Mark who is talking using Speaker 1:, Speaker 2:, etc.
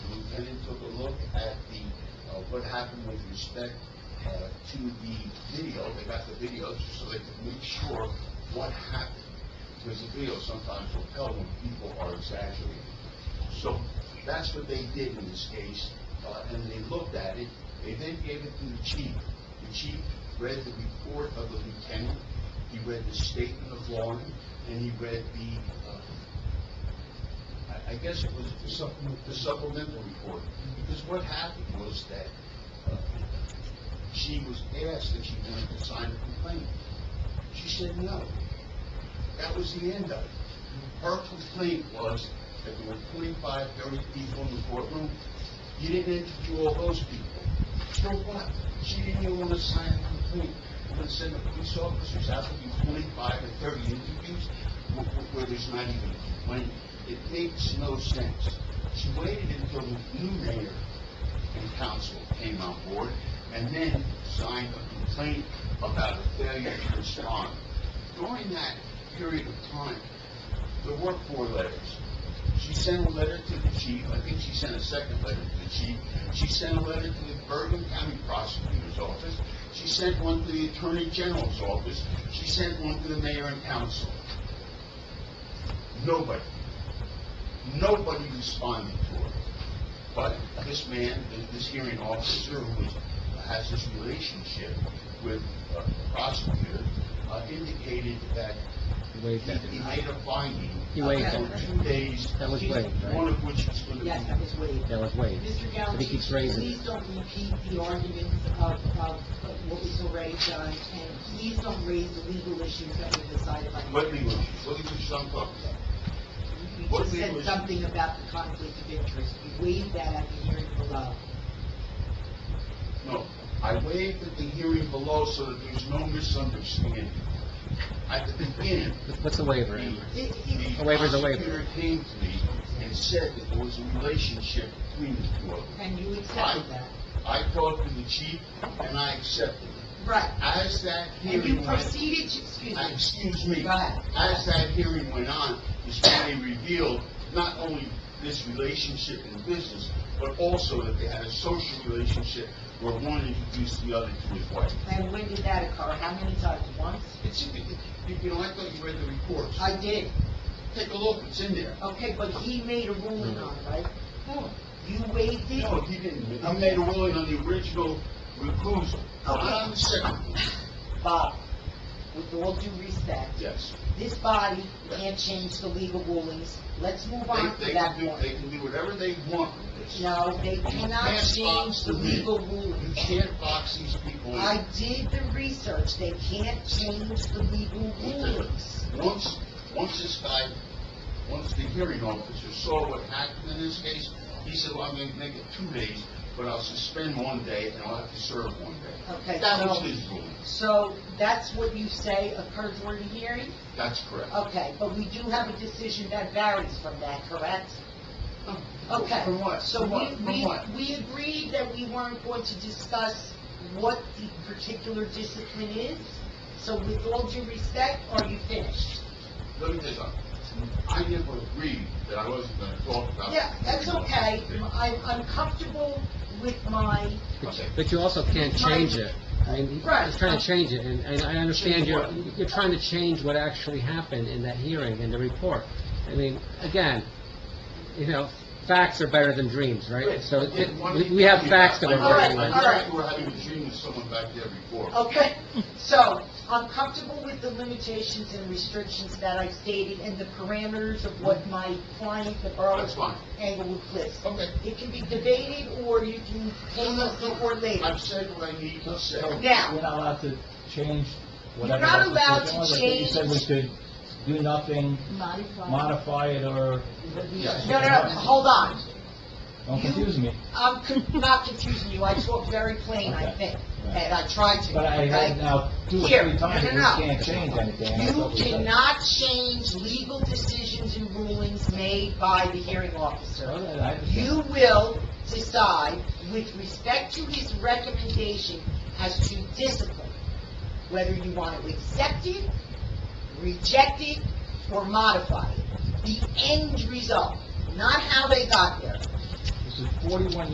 Speaker 1: uh, what happened with respect uh, to the video, they got the video just so they could make sure what happened. Because the video sometimes will tell when people are exaggerating. So that's what they did in this case, uh, and they looked at it. They then gave it to the chief. The chief read the report of the lieutenant, he read the statement of warning, and he read the, uh, I- I guess it was the supplement- the supplemental report. Because what happened was that uh, she was asked if she wanted to sign a complaint. She said no. That was the end of it. Her complaint was that there were 25, 30 people in the courtroom. You didn't interview all those people. So what? She didn't even want to sign a complaint. We're going to send the police officers out to do 25 and 30 interviews wh- wh- where there's not even a complaint. It makes no sense. She waited until the new mayor and council came on board and then signed a complaint about a failure to respond. During that period of time, there were four letters. She sent a letter to the chief, I think she sent a second letter to the chief. She sent a letter to the Bergen County Prosecutor's Office. She sent one to the Attorney General's Office. She sent one to the mayor and council. Nobody, nobody responded to her. But this man, this hearing officer who was- has this relationship with uh, the prosecutor, uh, indicated that
Speaker 2: You waived that,
Speaker 1: he
Speaker 2: didn't you?
Speaker 1: made a finding.
Speaker 2: He waived
Speaker 1: after
Speaker 3: that.
Speaker 1: Two days.
Speaker 2: That was waived, right?
Speaker 1: One of which was going to be.
Speaker 3: Yes, that was waived.
Speaker 2: That was waived.
Speaker 3: Mr.
Speaker 2: But he
Speaker 3: Gallantucci,
Speaker 2: keeps raising
Speaker 3: please
Speaker 2: it.
Speaker 3: don't repeat the arguments of, of what was already done, and please don't raise the legal issues that were decided by the...
Speaker 1: What legal issues? What legal issues I'm talking about?
Speaker 3: You
Speaker 1: what
Speaker 3: just
Speaker 1: legal
Speaker 3: said
Speaker 1: issues?
Speaker 3: something about the conflict of interest. You waived that at the hearing below.
Speaker 1: No, I waived at the hearing below so that there's no misunderstanding. At the beginning,
Speaker 2: What's the waiver,
Speaker 1: the
Speaker 2: Amber?
Speaker 3: It- it-
Speaker 2: A
Speaker 1: the
Speaker 2: waiver's a waiver.
Speaker 1: prosecutor came to me and said that there was a relationship between the two of them.
Speaker 3: And you accepted that.
Speaker 1: I talked to the chief and I accepted it.
Speaker 3: Right.
Speaker 1: As that
Speaker 3: And you
Speaker 1: hearing went,
Speaker 3: proceeded to, excuse
Speaker 1: Uh,
Speaker 3: me,
Speaker 1: excuse me,
Speaker 3: Go ahead.
Speaker 1: as that hearing went on, is when they revealed not only this relationship in business, but also that they had a social relationship where one introduced the other to his wife.
Speaker 3: and when did that occur? How many times? Once?
Speaker 1: It's, you you know, I thought you read the reports.
Speaker 3: I did.
Speaker 1: Take a look, it's in there.
Speaker 3: Okay, but he made a ruling on it, right?
Speaker 1: No.
Speaker 3: You waived it?
Speaker 1: No, he didn't. He made a ruling on the original recusal, not on the second.
Speaker 3: Bob, with all due respect,
Speaker 1: Yes.
Speaker 3: this body can't change the legal rulings. Let's move
Speaker 1: They,
Speaker 3: on
Speaker 1: they
Speaker 3: to that
Speaker 1: can do,
Speaker 3: one.
Speaker 1: they can do whatever they want with this.
Speaker 3: No, they cannot
Speaker 1: Pass
Speaker 3: change
Speaker 1: box
Speaker 3: the
Speaker 1: the minute.
Speaker 3: legal
Speaker 1: You
Speaker 3: rulings.
Speaker 1: can't box these people in.
Speaker 3: I did the research, they can't change the legal rulings.
Speaker 1: Once, once this guy, once the hearing officer saw what happened in this case, he said, well, I'm gonna make it two days, but I'll suspend one day and I'll have to serve one day.
Speaker 3: Okay,
Speaker 1: That was
Speaker 3: so,
Speaker 1: his ruling.
Speaker 3: so that's what you say occurred during the hearing?
Speaker 1: That's correct.
Speaker 3: Okay, but we do have a decision that varies from that, correct? Okay.
Speaker 1: Oh, From what?
Speaker 3: So
Speaker 1: From
Speaker 3: we,
Speaker 1: what? From
Speaker 3: we,
Speaker 1: what?
Speaker 3: we agreed that we weren't going to discuss what the particular discipline is. So with all due respect, are you finished?
Speaker 1: Let me tell you something. I never agreed that I wasn't gonna talk about.
Speaker 3: Yeah, that's okay. I'm, I'm comfortable with my,
Speaker 2: But
Speaker 1: Okay.
Speaker 2: but you also can't change it. I mean,
Speaker 3: Right.
Speaker 2: he's trying to change it, and, and I understand you're,
Speaker 1: Change what?
Speaker 2: you're trying to change what actually happened in that hearing and the report. I mean, again, you know, facts are better than dreams, right? So
Speaker 1: I didn't want
Speaker 2: we-
Speaker 1: to
Speaker 2: we have
Speaker 1: be-
Speaker 2: facts that are
Speaker 3: All right,
Speaker 2: better
Speaker 1: I
Speaker 2: than...
Speaker 3: all right.
Speaker 1: thought you were having a dream with someone back there before.
Speaker 3: okay? So I'm comfortable with the limitations and restrictions that I stated and the parameters of what my client, the borough
Speaker 1: That's fine.
Speaker 3: angle would list.
Speaker 1: Okay.
Speaker 3: It can be debated or you can table it for later.
Speaker 1: I've said what I need to say.
Speaker 3: Now,
Speaker 4: We're not allowed to change
Speaker 3: You're
Speaker 4: whatever.
Speaker 3: not
Speaker 4: the
Speaker 3: allowed
Speaker 4: decision was.
Speaker 3: to
Speaker 4: I think You said we could do nothing, modify it, or,
Speaker 1: Yes.
Speaker 3: No, no, no, hold on.
Speaker 4: don't
Speaker 3: You-
Speaker 4: confuse me.
Speaker 3: I'm con- not confusing you, I talk very plain, I think, and I try to,
Speaker 4: But I
Speaker 3: okay?
Speaker 4: heard now two or
Speaker 3: Here,
Speaker 4: three times,
Speaker 3: no,
Speaker 4: that
Speaker 3: no,
Speaker 4: we
Speaker 3: no.
Speaker 4: can't change anything. and I
Speaker 3: You
Speaker 4: thought we said-
Speaker 3: cannot change legal decisions and rulings made by the hearing
Speaker 4: Oh,
Speaker 3: officer.
Speaker 4: no, I understand.
Speaker 3: You will decide with respect to his recommendation as to discipline, whether you want to accept it, reject it, or modify it. The end result, not how they got there.
Speaker 4: This is forty-one